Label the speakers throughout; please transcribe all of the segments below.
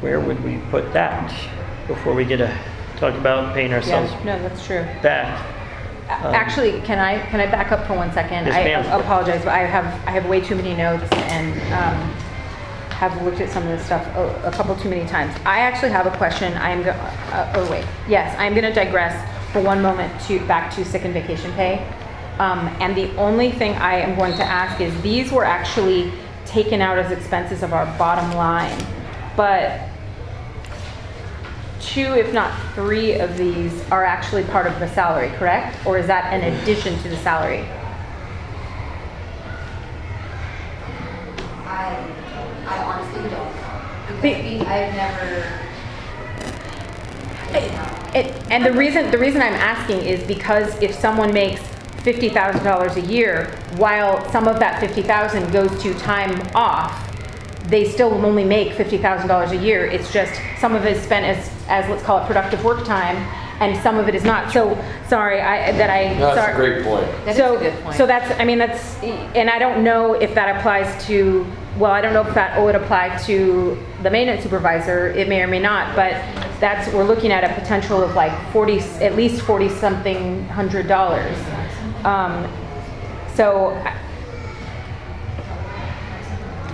Speaker 1: where would we put that before we get to talk about paying ourselves
Speaker 2: Yeah, no, that's true.
Speaker 1: back?
Speaker 2: A- Actually, can I, can I back up for one second?
Speaker 1: Um, Yes,
Speaker 2: I
Speaker 1: ma'am.
Speaker 2: apologize, but I have, I have way too many notes and um, have looked at some of this stuff a a couple too many times. I actually have a question, I'm, go- uh, oh wait, yes, I'm going to digress for one moment to, back to sick and vacation pay. Um, And the only thing I am going to ask is, these were actually taken out as expenses of our bottom line, but two, if not three of these are actually part of the salary, correct? Or is that an addition to the salary?
Speaker 3: I, I honestly don't. Because
Speaker 2: Be-
Speaker 3: we, I've never.
Speaker 2: It, and the reason, the reason I'm asking is because if someone makes fifty thousand dollars a year, while some of that fifty thousand goes to time off, they still only make fifty thousand dollars a year. It's just some of it is spent as, as let's call it productive work time, and some of it is not. So, sorry, I, that I.
Speaker 4: No, that's
Speaker 2: sorry.
Speaker 4: a great point.
Speaker 3: That is a
Speaker 2: So,
Speaker 3: good point.
Speaker 2: so that's, I mean, that's, and I don't know if that applies to, well, I don't know if that would apply to the maintenance supervisor, it may or may not, but that's, we're looking at a potential of like 40, at least 40-something hundred dollars. Um, So I-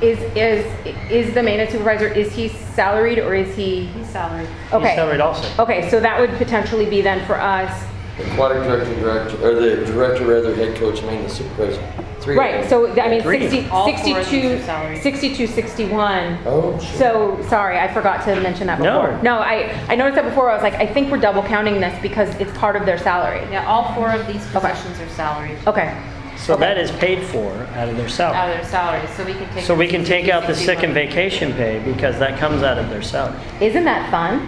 Speaker 2: is, is, is the maintenance supervisor, is he salaried or is he?
Speaker 3: He's salaried.
Speaker 1: He's
Speaker 2: Okay,
Speaker 1: salaried also.
Speaker 2: okay, so that would potentially be then for us,
Speaker 4: Aquatic director, director, or the director, rather, head coach, maintenance supervisor. Three of
Speaker 2: Right,
Speaker 4: them.
Speaker 2: so, I mean,
Speaker 1: Three.
Speaker 2: 60
Speaker 5: All four of these are
Speaker 2: 62,
Speaker 5: salary.
Speaker 2: 62, 61.
Speaker 4: Oh, sure.
Speaker 2: So, sorry, I forgot to mention that
Speaker 1: No.
Speaker 2: before. No, I, I noticed that before, I was like, I think we're double counting this because it's part of their salary.
Speaker 5: Yeah, all four of these positions are salaried,
Speaker 2: Oh. Okay,
Speaker 1: So that is paid for out of their
Speaker 5: out
Speaker 1: salary.
Speaker 5: of their salaries, Uh, so we can take.
Speaker 1: So
Speaker 5: the
Speaker 1: we can take out the sick and
Speaker 5: 62,
Speaker 1: vacation pay because that comes out of their salary.
Speaker 2: isn't that fun?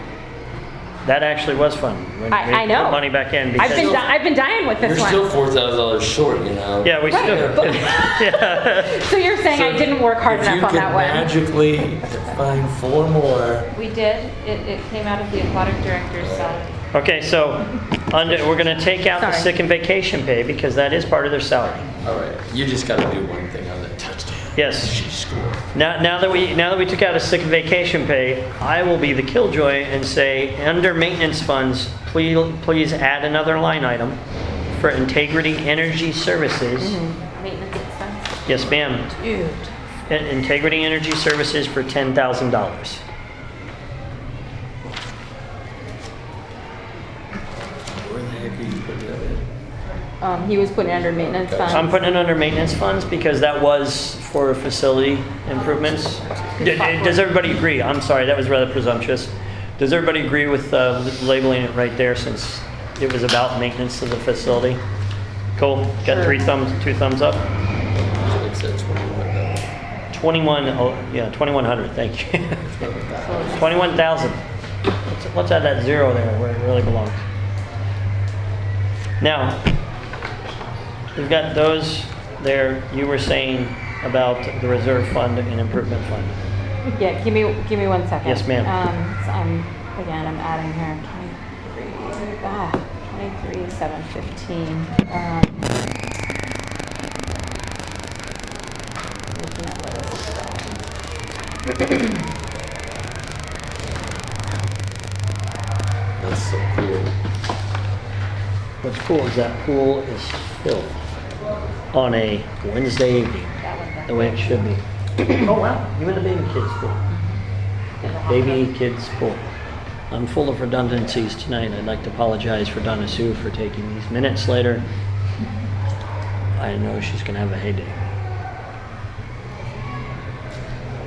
Speaker 1: That actually was fun. when
Speaker 2: I-
Speaker 1: we
Speaker 2: I know.
Speaker 1: Put money back in
Speaker 2: I've been,
Speaker 1: because,
Speaker 2: di- I've been dying with
Speaker 4: You're
Speaker 2: this
Speaker 4: still
Speaker 2: one.
Speaker 4: four thousand dollars short, you know?
Speaker 1: yeah, we
Speaker 2: Right,
Speaker 1: still, yeah.
Speaker 2: So you're saying I didn't work hard
Speaker 4: If you
Speaker 2: enough on
Speaker 4: can
Speaker 2: that one?
Speaker 4: magically find four more.
Speaker 5: 61. We did, it, it came out of the aquatic director's uh, salary.
Speaker 1: Okay, so under, we're gonna take out the
Speaker 2: Sorry.
Speaker 1: sick and vacation pay because that is part of their salary.
Speaker 4: All right, you just got to do one thing on that touchdown.
Speaker 1: Yes.
Speaker 4: She scored.
Speaker 1: Now, now that we, now that we took out a sick and vacation pay, I will be the killjoy and say, under maintenance funds, please, please add another line item for integrity energy services.
Speaker 5: Maintenance expense.
Speaker 1: Yes, ma'am.
Speaker 2: Dude.
Speaker 1: In- Integrity Energy Services for ten thousand dollars.
Speaker 4: Where the heck are you putting that in?
Speaker 2: Um, he was putting it under maintenance
Speaker 4: Okay.
Speaker 1: I'm
Speaker 2: funds.
Speaker 1: putting it under maintenance funds because that was for facility improvements. D- d- Does everybody agree? I'm sorry, that was rather presumptuous. Does everybody agree with uh, labeling it right there since it was about maintenance of the facility? Cool, got three thumbs, two thumbs up?
Speaker 4: Does it make sense when you put that in?
Speaker 1: Twenty-one, oh, yeah, twenty-one hundred, thank you. Twenty-one thousand. Let's, let's add that zero there where it really belongs. Now, we've got those there, you were saying about the reserve fund and improvement fund.
Speaker 2: Yeah, give me, give me one second.
Speaker 1: Yes, ma'am.
Speaker 2: Um, so I'm, again, I'm adding here, 23, ah, 23, 715. Um, looking at where this is going.
Speaker 4: That's so cool.
Speaker 1: What's cool is that pool is filled on a Wednesday evening, the way it should be. Oh, wow, you in the baby kids pool? Baby kids pool. I'm full of redundancies tonight. I'd like to apologize for Donna Sue for taking these minutes later. I know she's gonna have a heyday.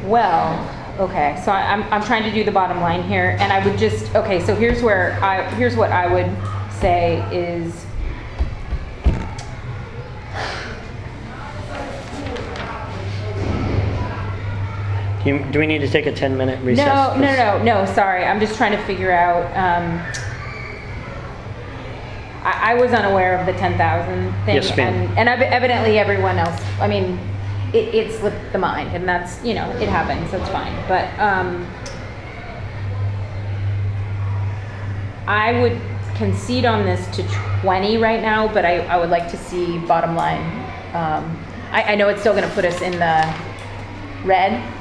Speaker 2: Well, okay, so I- I'm, I'm trying to do the bottom line here, and I would just, okay, so here's where I, here's what I would say is.
Speaker 1: Do you- Do we need to take a 10-minute recess?
Speaker 2: No, no, no, no, no, sorry, I'm just trying to figure out, um, I, I was unaware of the ten thousand thing.
Speaker 1: Yes, ma'am.
Speaker 2: and- And ev- evidently everyone else, I mean, it, it slipped the mind, and that's, you know, it happens, that's fine, but, um, I would concede on this to 20 right now, but I, I would like to see bottom line. Um, I, I know it's still going to put us in the red,